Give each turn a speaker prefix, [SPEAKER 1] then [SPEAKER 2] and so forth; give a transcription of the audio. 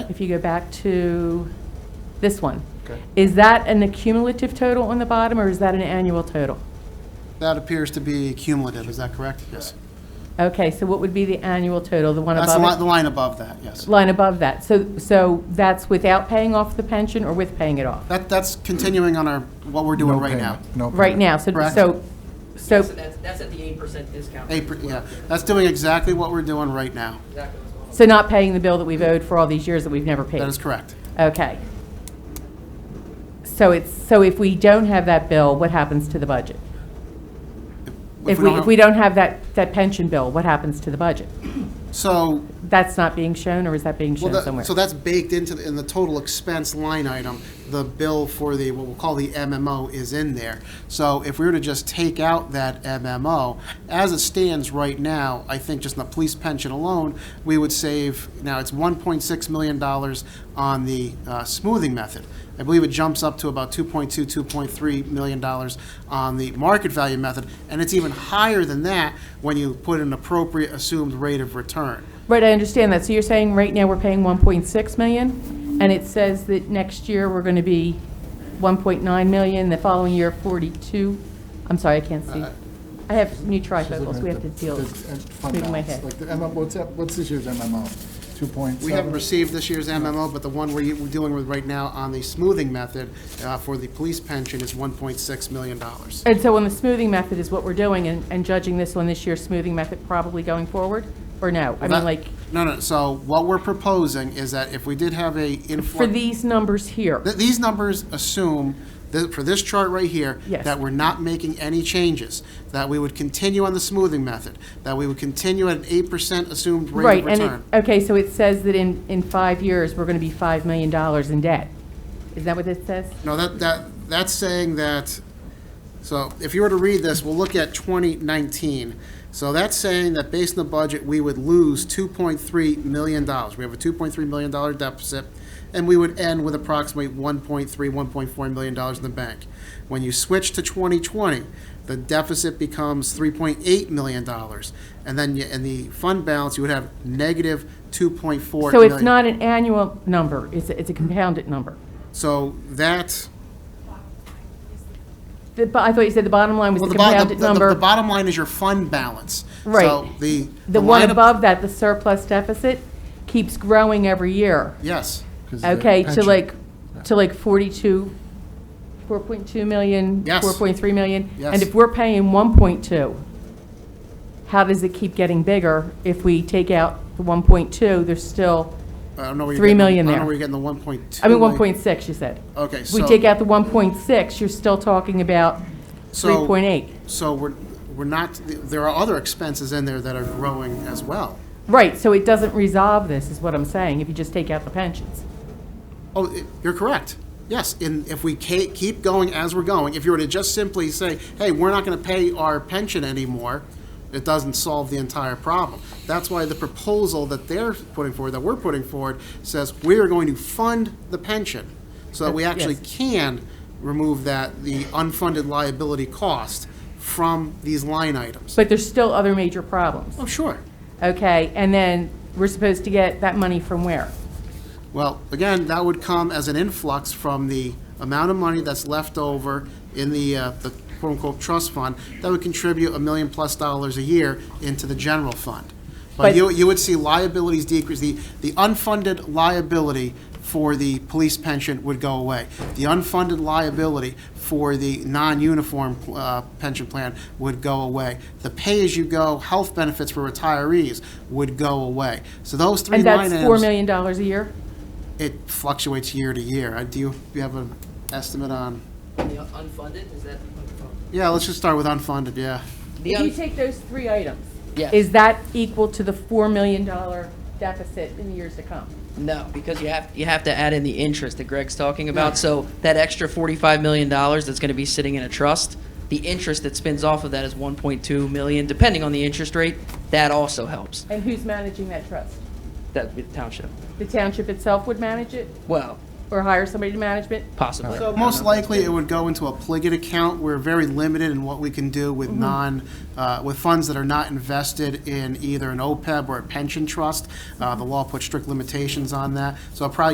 [SPEAKER 1] if you go back to this one.
[SPEAKER 2] Okay.
[SPEAKER 1] Is that an accumulative total on the bottom, or is that an annual total?
[SPEAKER 2] That appears to be cumulative, is that correct? Yes.
[SPEAKER 1] Okay, so what would be the annual total, the one
[SPEAKER 2] That's the li-
[SPEAKER 1] above
[SPEAKER 2] the
[SPEAKER 1] it?
[SPEAKER 2] line above that, yes.
[SPEAKER 1] Line above that. So, so that's without paying off the pension or with paying it off?
[SPEAKER 2] That, that's continuing on our, what we're doing
[SPEAKER 3] No
[SPEAKER 2] right now.
[SPEAKER 3] payment, no
[SPEAKER 1] Right
[SPEAKER 3] payment.
[SPEAKER 1] now, so,
[SPEAKER 2] Correct.
[SPEAKER 1] so, so,
[SPEAKER 4] So that's, that's at the eight percent discount.
[SPEAKER 2] Eight per- Yeah, that's doing exactly what we're doing right now.
[SPEAKER 4] Exactly what's going on.
[SPEAKER 1] so not paying the bill that we've owed for all these years that we've never paid?
[SPEAKER 2] That is correct.
[SPEAKER 1] Okay. So it's, so if we don't have that bill, what happens to the budget? If we, if
[SPEAKER 2] have-
[SPEAKER 1] we don't have that, that pension bill, what happens to the budget?
[SPEAKER 2] So,
[SPEAKER 1] That's not being shown, or is that being
[SPEAKER 2] well,
[SPEAKER 1] shown
[SPEAKER 2] that-
[SPEAKER 1] somewhere?
[SPEAKER 2] so that's baked into, the- in the total expense line item, the bill for the, what we'll call the MMO is in there. So if we were to just take out that MMO, as it stands right now, I think just in the police pension alone, we would save, now it's $1.6 million on the uh, smoothing method. I believe it jumps up to about 2.2, 2.3 million dollars on the market value method, and it's even higher than that when you put an appropriate assumed rate of return.
[SPEAKER 1] Right, I understand that. So you're saying right now we're paying 1.6 million, and it says that next year we're going to be 1.9 million, the following year 42, I'm sorry, I can't
[SPEAKER 2] Uh,
[SPEAKER 1] see. I have new
[SPEAKER 3] She's looking
[SPEAKER 1] trifocals, we
[SPEAKER 3] at
[SPEAKER 1] have to
[SPEAKER 3] the-
[SPEAKER 1] deal,
[SPEAKER 3] the, uh, fund
[SPEAKER 1] moving my
[SPEAKER 3] balance,
[SPEAKER 1] head.
[SPEAKER 3] Like the MMO, what's, that- what's this year's MMO? Two point seven?
[SPEAKER 2] We haven't received this year's MMO, but the one we're we're dealing with right now on the smoothing method uh, for the police pension is $1.6 million.
[SPEAKER 1] And so on the smoothing method is what we're doing, and and judging this on this year's smoothing method probably going forward, or no? I mean, like,
[SPEAKER 2] No, no, so what we're proposing is that if we did have a
[SPEAKER 1] for
[SPEAKER 2] influx,
[SPEAKER 1] these numbers here,
[SPEAKER 2] th- these numbers assume, that for this chart right here,
[SPEAKER 1] Yes.
[SPEAKER 2] that we're not making any changes, that we would continue on the smoothing method, that we would continue at an 8% assumed rate
[SPEAKER 1] right,
[SPEAKER 2] of
[SPEAKER 1] and it,
[SPEAKER 2] return.
[SPEAKER 1] okay, so it says that in, in five years, we're going to be $5 million in debt. Is that what it says?
[SPEAKER 2] No, that, that, that's saying that, so if you were to read this, we'll look at 2019. So that's saying that based on the budget, we would lose $2.3 million. We have a $2.3 million dollar deficit, and we would end with approximately $1.3, $1.4 million dollars in the bank. When you switch to 2020, the deficit becomes $3.8 million. dollars, And then you- in the fund balance, you would have negative 2.4 million.
[SPEAKER 1] So it's not an annual number, it's, a- it's a compounded number.
[SPEAKER 2] So that.
[SPEAKER 1] The bo- I thought you said the bottom line was
[SPEAKER 2] Well,
[SPEAKER 1] the
[SPEAKER 2] the bottom, the,
[SPEAKER 1] compounded
[SPEAKER 2] the- the
[SPEAKER 1] number.
[SPEAKER 2] bottom line is your fund balance.
[SPEAKER 1] Right.
[SPEAKER 2] So the.
[SPEAKER 1] The one
[SPEAKER 2] line ab-
[SPEAKER 1] above that, the surplus deficit, keeps growing every year.
[SPEAKER 2] Yes,
[SPEAKER 1] Okay, to like, to like 42, 4.2 million,
[SPEAKER 2] Yes.
[SPEAKER 1] 4.3 million?
[SPEAKER 2] Yes.
[SPEAKER 1] And if we're paying 1.2, how does it keep getting bigger? If we take out the 1.2, there's still,
[SPEAKER 2] I don't know where you're.
[SPEAKER 1] Three
[SPEAKER 2] getting the-
[SPEAKER 1] million
[SPEAKER 2] I don't
[SPEAKER 1] there.
[SPEAKER 2] know where you're getting the one point two.
[SPEAKER 1] I mean, 1.6, you said.
[SPEAKER 2] Okay, uh, so.
[SPEAKER 1] We take out the 1.6, you're still talking about
[SPEAKER 2] so-
[SPEAKER 1] 3.8.
[SPEAKER 2] So we're, we're not, there are other expenses in there that are growing as well.
[SPEAKER 1] Right, so it doesn't resolve this, is what I'm saying, if you just take out the pensions.
[SPEAKER 2] Oh, i- you're correct. Yes, and if we ca- keep going as we're going, if you were to just simply say, hey, we're not going to pay our pension anymore, it doesn't solve the entire problem. That's why the proposal that they're putting forward, that we're putting forward, says we are going to fund the pension so that we actually
[SPEAKER 1] Yes.
[SPEAKER 2] can remove that, the unfunded liability cost from these line items.
[SPEAKER 1] But there's still other major problems,
[SPEAKER 2] Oh, sure.
[SPEAKER 1] okay? And then we're supposed to get that money from where?
[SPEAKER 2] Well, again, that would come as an influx from the amount of money that's left over in the, uh, the quote-unquote trust fund, that would contribute a million-plus dollars a year into the general fund. But
[SPEAKER 1] But-
[SPEAKER 2] you, you would see liabilities decrease, the, the unfunded liability for the police pension would go away. The unfunded liability for the non-uniform uh, pension plan would go away. The pay-as-you-go health benefits for retirees would go away. So those three
[SPEAKER 1] And
[SPEAKER 2] line
[SPEAKER 1] that's
[SPEAKER 2] items.
[SPEAKER 1] $4 million a year?
[SPEAKER 2] It fluctuates year to year. Uh, Do you, you have an estimate on,
[SPEAKER 4] The unfunded, is that?
[SPEAKER 2] yeah, let's just start with unfunded, yeah.
[SPEAKER 4] The
[SPEAKER 1] If you
[SPEAKER 4] un-
[SPEAKER 1] take those three items,
[SPEAKER 4] Yes.
[SPEAKER 1] is that equal to the $4 million deficit in years to come?
[SPEAKER 4] No, because you have, you have to add in the interest that Greg's talking about. So that extra forty-five million dollars that's gonna be sitting in a trust, the interest that spins off of that is one point two million, depending on the interest rate. That also helps,
[SPEAKER 1] And who's managing that trust?
[SPEAKER 4] that, with township.
[SPEAKER 1] The township itself would manage it?
[SPEAKER 4] Well,
[SPEAKER 1] or hire somebody to management?
[SPEAKER 4] possibly.
[SPEAKER 2] So most likely, it would go into a Pliget account. We're very limited in what we can do with non, uh, with funds that are not invested E in either an OPEB or a pension trust. Uh, The law puts strict limitations on that, so it probably